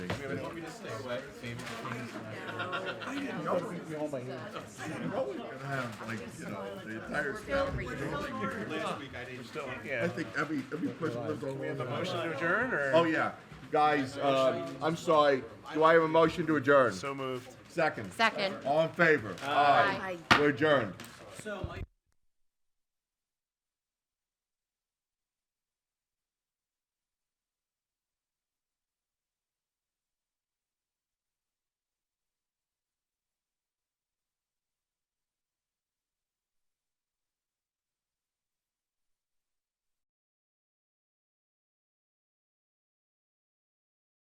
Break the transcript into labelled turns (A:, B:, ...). A: Everybody want me to stay away? Famous things.
B: I didn't know we were home by here. I didn't know we were gonna have like you know the entire family.
A: Last week I didn't.
B: I
C: Yeah.
B: think every every person lives on one.
C: Motion to adjourn or?
B: Oh yeah, guys. Uh, I'm sorry. Do I have a motion to adjourn?
C: So moved.
B: Second.
D: Second.
B: All in favor? Aye.
D: Aye.
B: We're adjourned.
A: So, Mike.